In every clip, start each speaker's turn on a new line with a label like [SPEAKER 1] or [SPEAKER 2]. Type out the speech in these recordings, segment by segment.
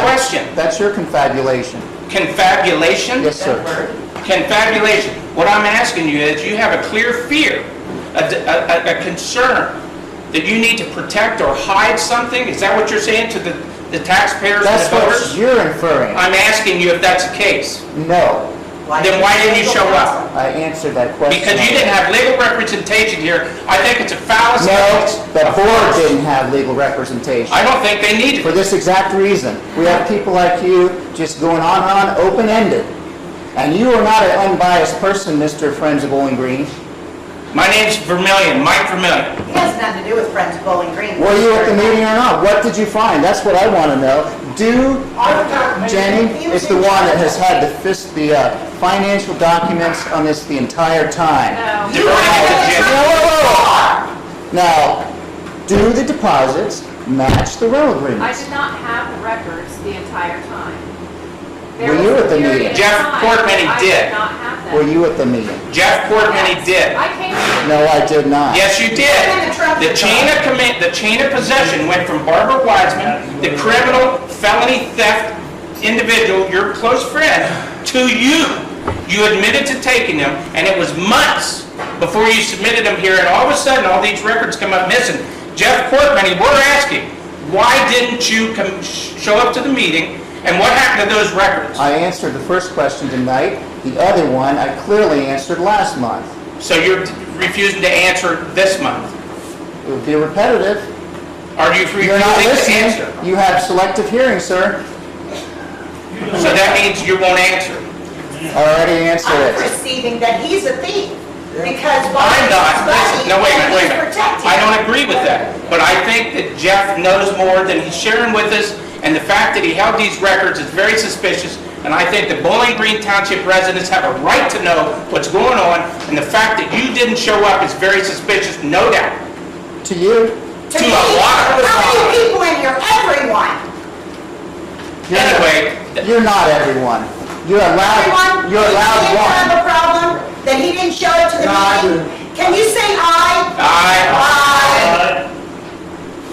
[SPEAKER 1] question.
[SPEAKER 2] Uh, That's your confabulation.
[SPEAKER 1] Confabulation?
[SPEAKER 2] Yes, sir.
[SPEAKER 1] Confabulation. What I'm asking you is, you have a clear fear, a, a, a concern that you need to protect or hide something? Is that what you're saying to the, the taxpayers and
[SPEAKER 2] That's
[SPEAKER 1] the
[SPEAKER 2] what
[SPEAKER 1] voters?
[SPEAKER 2] you're inferring.
[SPEAKER 1] I'm asking you if that's the case.
[SPEAKER 2] No,
[SPEAKER 1] Then why didn't you show up?
[SPEAKER 2] I answered that question.
[SPEAKER 1] Because you didn't have legal representation here. I think it's a fallacy.
[SPEAKER 2] No, the
[SPEAKER 1] Of
[SPEAKER 2] board
[SPEAKER 1] course.
[SPEAKER 2] didn't have legal representation.
[SPEAKER 1] I don't think they needed
[SPEAKER 2] For this exact reason. We have people like you just going on and on, open-ended. And you are not an unbiased person, Mr. Friends of Bowling Green.
[SPEAKER 1] My name's Vermillion, Mike Vermillion.
[SPEAKER 3] It has nothing to do with Friends of Bowling Green.
[SPEAKER 2] Were you at the meeting or not? What did you find? That's what I want to know. Do,
[SPEAKER 3] I was not at the
[SPEAKER 2] Jenny
[SPEAKER 3] meeting. He was
[SPEAKER 2] is the
[SPEAKER 3] in
[SPEAKER 2] one that has
[SPEAKER 3] charge.
[SPEAKER 2] had the fis- the uh, financial documents on this the entire time.
[SPEAKER 1] You were at the
[SPEAKER 2] No,
[SPEAKER 1] gym.
[SPEAKER 2] whoa, whoa, whoa. Now, do the deposits match the rental
[SPEAKER 4] I
[SPEAKER 2] agreements?
[SPEAKER 4] did not have the records the entire time. There
[SPEAKER 2] Were
[SPEAKER 4] was
[SPEAKER 2] you
[SPEAKER 4] a
[SPEAKER 2] at the
[SPEAKER 4] period
[SPEAKER 2] meeting?
[SPEAKER 4] of
[SPEAKER 1] Jeff
[SPEAKER 4] time
[SPEAKER 1] Portman, he
[SPEAKER 4] that I
[SPEAKER 1] did.
[SPEAKER 4] did not have them.
[SPEAKER 2] Were you at the meeting?
[SPEAKER 1] Jeff Portman, he
[SPEAKER 4] Yes.
[SPEAKER 1] did.
[SPEAKER 4] I came to the
[SPEAKER 2] No, I did not.
[SPEAKER 1] Yes, you did. The chain of command, the chain of possession went from Barbara Wiseman, the criminal felony theft individual, your close friend, to you. You admitted to taking them, and it was months before you submitted them here, and all of a sudden, all these records come up missing. Jeff Corkman, we're asking, why didn't you come, show up to the meeting, and what happened to those records?
[SPEAKER 2] I answered the first question tonight. The other one I clearly answered last month.
[SPEAKER 1] So you're refusing to answer this month?
[SPEAKER 2] It would be repetitive.
[SPEAKER 1] Are you refusing
[SPEAKER 2] You're not
[SPEAKER 1] to
[SPEAKER 2] listening.
[SPEAKER 1] answer?
[SPEAKER 2] You have selective hearing, sir.
[SPEAKER 1] So that means you won't answer.
[SPEAKER 2] I Already answered it.
[SPEAKER 3] I'm perceiving that he's a thief because
[SPEAKER 1] I'm
[SPEAKER 3] Bobby's his
[SPEAKER 1] not,
[SPEAKER 3] buddy.
[SPEAKER 1] listen, no, wait a minute, wait a minute.
[SPEAKER 3] and he's protecting
[SPEAKER 1] I don't
[SPEAKER 3] him.
[SPEAKER 1] agree with that, but I think that Jeff knows more than he's sharing with us, and the fact that he held these records is very suspicious, and I think the Bowling Green Township residents have a right to know what's going on, and the fact that you didn't show up is very suspicious, no doubt.
[SPEAKER 2] To you,
[SPEAKER 1] to
[SPEAKER 3] To me,
[SPEAKER 1] a lot of
[SPEAKER 3] how many
[SPEAKER 1] people.
[SPEAKER 3] people in here? Everyone.
[SPEAKER 2] Uh, You're-
[SPEAKER 1] Anyway, th-
[SPEAKER 2] You're not everyone. You're allowed,
[SPEAKER 3] Everyone.
[SPEAKER 2] you're
[SPEAKER 3] He didn't have
[SPEAKER 2] allowed
[SPEAKER 3] a problem that he didn't show up to the
[SPEAKER 2] No, I
[SPEAKER 3] meeting. Can you say aye?
[SPEAKER 1] Aye.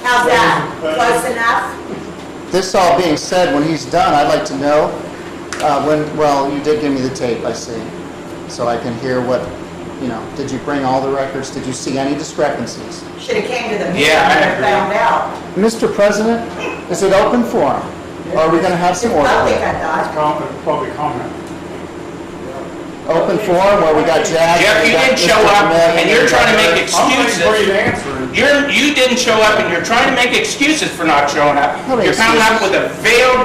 [SPEAKER 3] How's that? Close enough?
[SPEAKER 2] one. This all being said, when he's done, I'd like to know, uh, when, well, you did give me the tape, I see. So I can hear what, you know, did you bring all the records? Did you see any discrepancies?
[SPEAKER 3] Should have came to the meeting
[SPEAKER 1] Yeah, I
[SPEAKER 3] and
[SPEAKER 1] agree.
[SPEAKER 3] found out.
[SPEAKER 2] Mr. President, is it open forum? Or Are we gonna have some order?
[SPEAKER 3] Public, I thought.
[SPEAKER 5] Comment, public comment.
[SPEAKER 2] Open forum where we got Jack.
[SPEAKER 1] Jeff,
[SPEAKER 2] we
[SPEAKER 1] you
[SPEAKER 2] got
[SPEAKER 1] didn't
[SPEAKER 2] Mr.
[SPEAKER 1] show up,
[SPEAKER 2] Vermillion,
[SPEAKER 1] and you're
[SPEAKER 2] we got
[SPEAKER 1] trying to
[SPEAKER 2] Eric.
[SPEAKER 1] make
[SPEAKER 5] I'm waiting for you
[SPEAKER 1] excuses.
[SPEAKER 5] to answer it.
[SPEAKER 1] You're, you didn't show up, and you're trying to make excuses for not showing up.
[SPEAKER 2] What
[SPEAKER 1] You're coming up with
[SPEAKER 2] excuses?
[SPEAKER 1] a veiled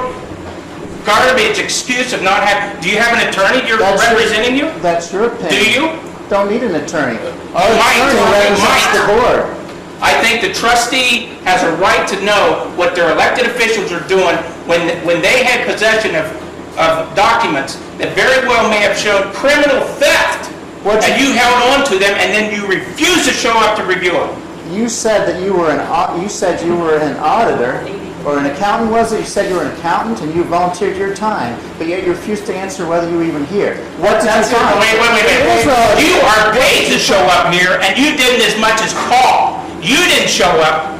[SPEAKER 1] garbage excuse of not having, do you have an attorney you're
[SPEAKER 2] That's your-
[SPEAKER 1] representing you?
[SPEAKER 2] That's your opinion.
[SPEAKER 1] Do you?
[SPEAKER 2] Don't need an attorney. Our
[SPEAKER 1] Mike,
[SPEAKER 2] attorney
[SPEAKER 1] Mike.
[SPEAKER 2] represents the board.
[SPEAKER 1] I think the trustee has a right to know what their elected officials are doing when, when they had possession of, of documents that very well may have shown criminal theft,
[SPEAKER 2] What's-
[SPEAKER 1] and you held on to them, and then you refused to show up to review them.
[SPEAKER 2] You said that you were an, au- you said you were an auditor, or an accountant, was it? You said you were an accountant and you volunteered your time, but yet you refused to answer whether you were even here. What did you
[SPEAKER 1] That's it.
[SPEAKER 2] find?
[SPEAKER 1] Wait, wait, wait,
[SPEAKER 2] Here's what
[SPEAKER 1] wait.
[SPEAKER 2] I-
[SPEAKER 1] You are paid to show up here, and you didn't as much as call. You didn't show up.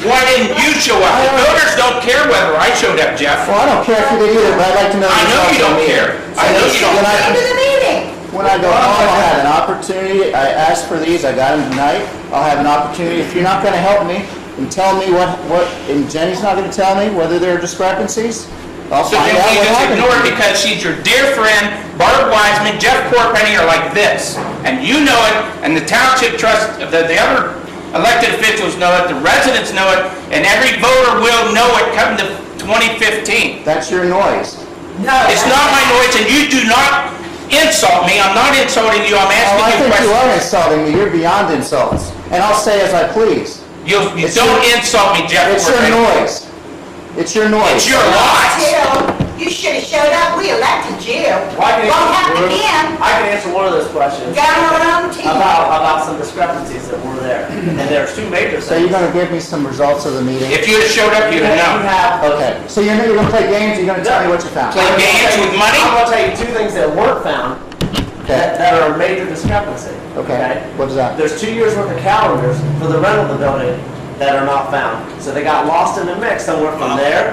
[SPEAKER 1] Why didn't you show up? The voters don't care whether I showed up, Jeff.
[SPEAKER 2] Well, I don't care if you did either, but I'd like to know.
[SPEAKER 1] I know
[SPEAKER 2] yourself
[SPEAKER 1] you don't
[SPEAKER 2] from
[SPEAKER 1] care. I know you don't
[SPEAKER 2] When
[SPEAKER 1] care.
[SPEAKER 3] Came to the meeting.
[SPEAKER 2] When I go home, I'll have an opportunity, I asked for these, I got them tonight, I'll have an opportunity, if you're not gonna help me and tell me what, what, and Jenny's not gonna tell me whether there are discrepancies, I'll
[SPEAKER 1] So then
[SPEAKER 2] find out
[SPEAKER 1] we
[SPEAKER 2] what
[SPEAKER 1] just
[SPEAKER 2] happened.
[SPEAKER 1] ignore it because she's your dear friend, Barb Wiseman, Jeff Corpenny are like this. And you know it, and the township trust, the, the other elected officials know it, the residents know it, and every voter will know it come to 2015.
[SPEAKER 2] That's your noise.
[SPEAKER 3] No.
[SPEAKER 1] It's not my noise, and you do not insult me. I'm not insulting you, I'm
[SPEAKER 2] Oh, I
[SPEAKER 1] asking you
[SPEAKER 2] think you are
[SPEAKER 1] questions.
[SPEAKER 2] insulting me. You're beyond insults. And I'll say as I please.
[SPEAKER 1] You, you
[SPEAKER 2] It's
[SPEAKER 1] don't
[SPEAKER 2] your-
[SPEAKER 1] insult me, Jeff
[SPEAKER 2] It's your
[SPEAKER 1] Corpenny.
[SPEAKER 2] noise. It's your noise.
[SPEAKER 1] It's your lies.
[SPEAKER 3] Jill, you should have showed up. We elected you.
[SPEAKER 6] Well, I can
[SPEAKER 3] Won't
[SPEAKER 6] answer-
[SPEAKER 3] happen again.
[SPEAKER 6] I can answer one of those questions
[SPEAKER 3] Got our own team.
[SPEAKER 6] about, about some discrepancies that were there. And there's two major
[SPEAKER 2] So you're
[SPEAKER 6] things.
[SPEAKER 2] gonna give me some results of the meeting?
[SPEAKER 1] If you had showed up,
[SPEAKER 6] You
[SPEAKER 1] you'd have
[SPEAKER 6] have, you
[SPEAKER 1] known.
[SPEAKER 6] have.
[SPEAKER 2] Okay. So you're, you're gonna play games, you're gonna tell me what you found?
[SPEAKER 1] Play- games with money?
[SPEAKER 6] I'm gonna tell you two things that weren't found that,
[SPEAKER 2] Okay.
[SPEAKER 6] that are a major discrepancy.
[SPEAKER 2] Okay. uh, What is that?
[SPEAKER 6] There's two years worth of calendars for the rental of the building that are not found. So they got lost in the mix somewhere from there